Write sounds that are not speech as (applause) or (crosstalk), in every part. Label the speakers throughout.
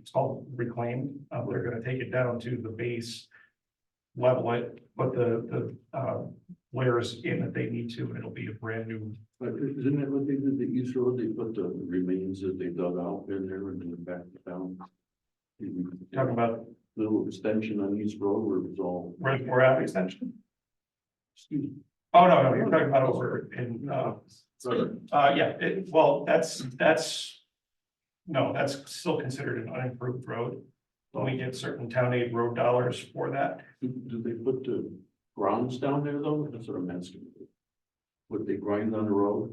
Speaker 1: It's all reclaimed. Uh, they're gonna take it down to the base. Level it, put the, the, uh, layers in that they need to, and it'll be a brand new.
Speaker 2: But isn't that what they did the East Road? They put the remains that they dug out in there and then back down.
Speaker 1: Talking about
Speaker 2: Little extension on East Road where it was all,
Speaker 1: reservoir Ave extension?
Speaker 2: excuse me.
Speaker 1: Oh, no, no, you're talking about over in, uh,
Speaker 2: sorry.
Speaker 1: uh, yeah, it, well, that's, that's. No, that's still considered an unimproved road. But we get certain town aid road dollars for that.
Speaker 2: Do, do they put the grounds down there though? That's what I'm asking. Would they grind on the road?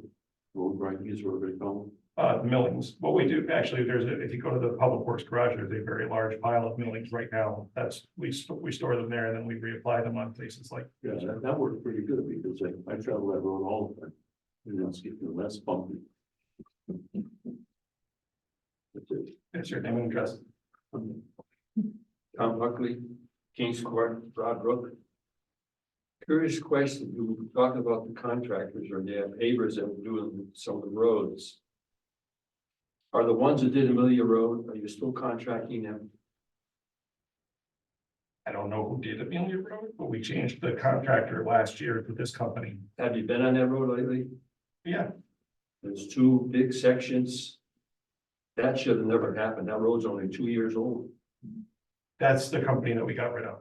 Speaker 2: Road grind, East Road, they call
Speaker 1: uh, millings. What we do, actually, there's, a if you go to the Public Works Garage, there's a very large pile of millings right now. That's, we, st- we store them there and then we reapply them on places like,
Speaker 2: them. Yeah, that, that worked pretty good because I, I travel that road all the time. And that's getting less bumpy. That's it.
Speaker 1: it's your name and address.
Speaker 3: Tom Buckley, Kings Court, Broad Brook. Curious question, you were talking about the contractors or the pavers that were doing some of the roads. Are the ones that did Amelia Road, are you still contracting them?
Speaker 1: I don't know who did Amelia Road, but we changed the contractor last year to this company.
Speaker 3: Have you been on that road lately?
Speaker 1: Yeah,
Speaker 3: There's two big sections. That should have never happened. That road's only two years old.
Speaker 1: that's the company that we got rid of.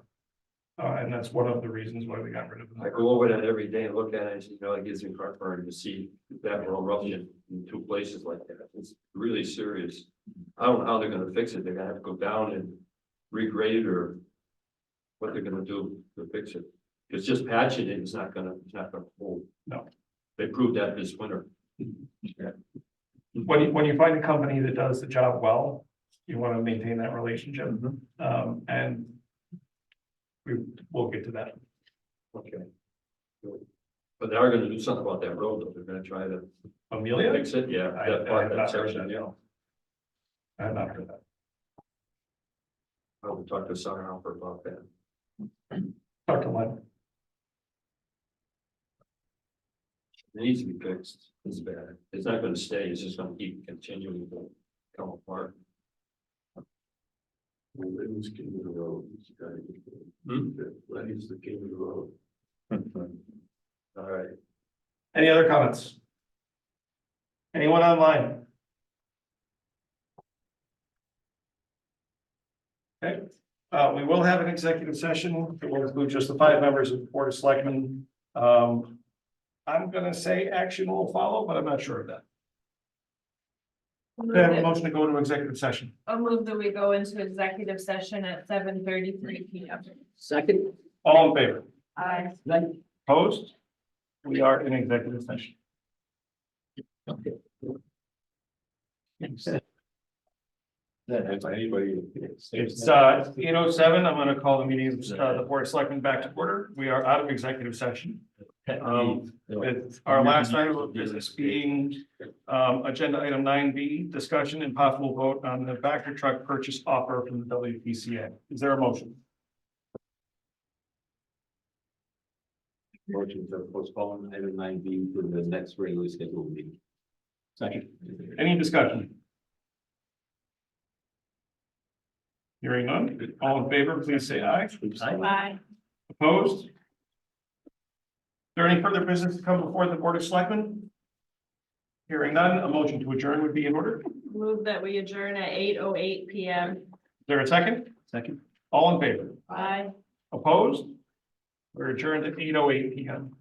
Speaker 1: Uh, and that's one of the reasons why we got rid of them.
Speaker 3: I go over that every day and look at it, and you know, it gives me heartburn to see that we're all rubbing it in two places like that. It's really serious. I don't know how they're gonna fix it. They're gonna have to go down and regrade or what they're gonna do to fix it. It's just patching it, it's not gonna, it's not gonna hold.
Speaker 1: No.
Speaker 3: They proved that this winter.
Speaker 1: When you, when you find a company that does the job well, you want to maintain that relationship. Um, and we will get to that.
Speaker 3: Okay. Good. But they are gonna do something about that road, though. They're gonna try to
Speaker 1: Amelia?
Speaker 3: fix it, yeah.
Speaker 1: I
Speaker 3: that-
Speaker 1: have not
Speaker 3: that
Speaker 1: heard
Speaker 3: section,
Speaker 1: that.
Speaker 3: yeah.
Speaker 1: I have not heard that.
Speaker 3: I'll talk to Sarah Alper about that.
Speaker 1: Dr. Lynn,
Speaker 3: It needs to be fixed, it's bad, it's not gonna stay, it's just gonna keep continuing to come apart.
Speaker 2: Well, it was king of the road. this guy.
Speaker 3: Hmm?
Speaker 2: That is the king of the road.
Speaker 3: (laughs) All right,
Speaker 1: any other comments? Anyone online? Okay, uh, we will have an executive session. It will include just the five members of the Board of Selectmen. Um, I'm gonna say action will follow, but I'm not sure of that. Can I have a
Speaker 4: I'll
Speaker 1: motion to go into executive session?
Speaker 4: move that we go into executive session at seven thirty-three P M.
Speaker 5: Second,
Speaker 1: All in favor?
Speaker 4: Aye.
Speaker 5: like,
Speaker 1: Opposed? We are in executive session.
Speaker 2: That if anybody.
Speaker 1: It's uh eight oh seven. I'm gonna call the meeting of uh, the Board of Selectmen back to order. We are out of executive session. Um, with our last item of business being um agenda item nine B, discussion and possible vote on the Vector truck purchase offer from the WPCA. Is there a motion?
Speaker 2: Motion to postpone item nine B to the next regularly scheduled meeting. Second.
Speaker 1: Any discussion? Hearing none. All in favor, please say aye.
Speaker 4: Aye.
Speaker 1: Opposed? Is There any further business to come before the Board of Selectmen? Hearing none, a motion to adjourn would be in order. Is
Speaker 4: Move that we adjourn at eight oh eight P M.
Speaker 1: there a second? Second. All in favor?
Speaker 4: Aye.
Speaker 1: Opposed? We're adjourned at eight oh eight P M.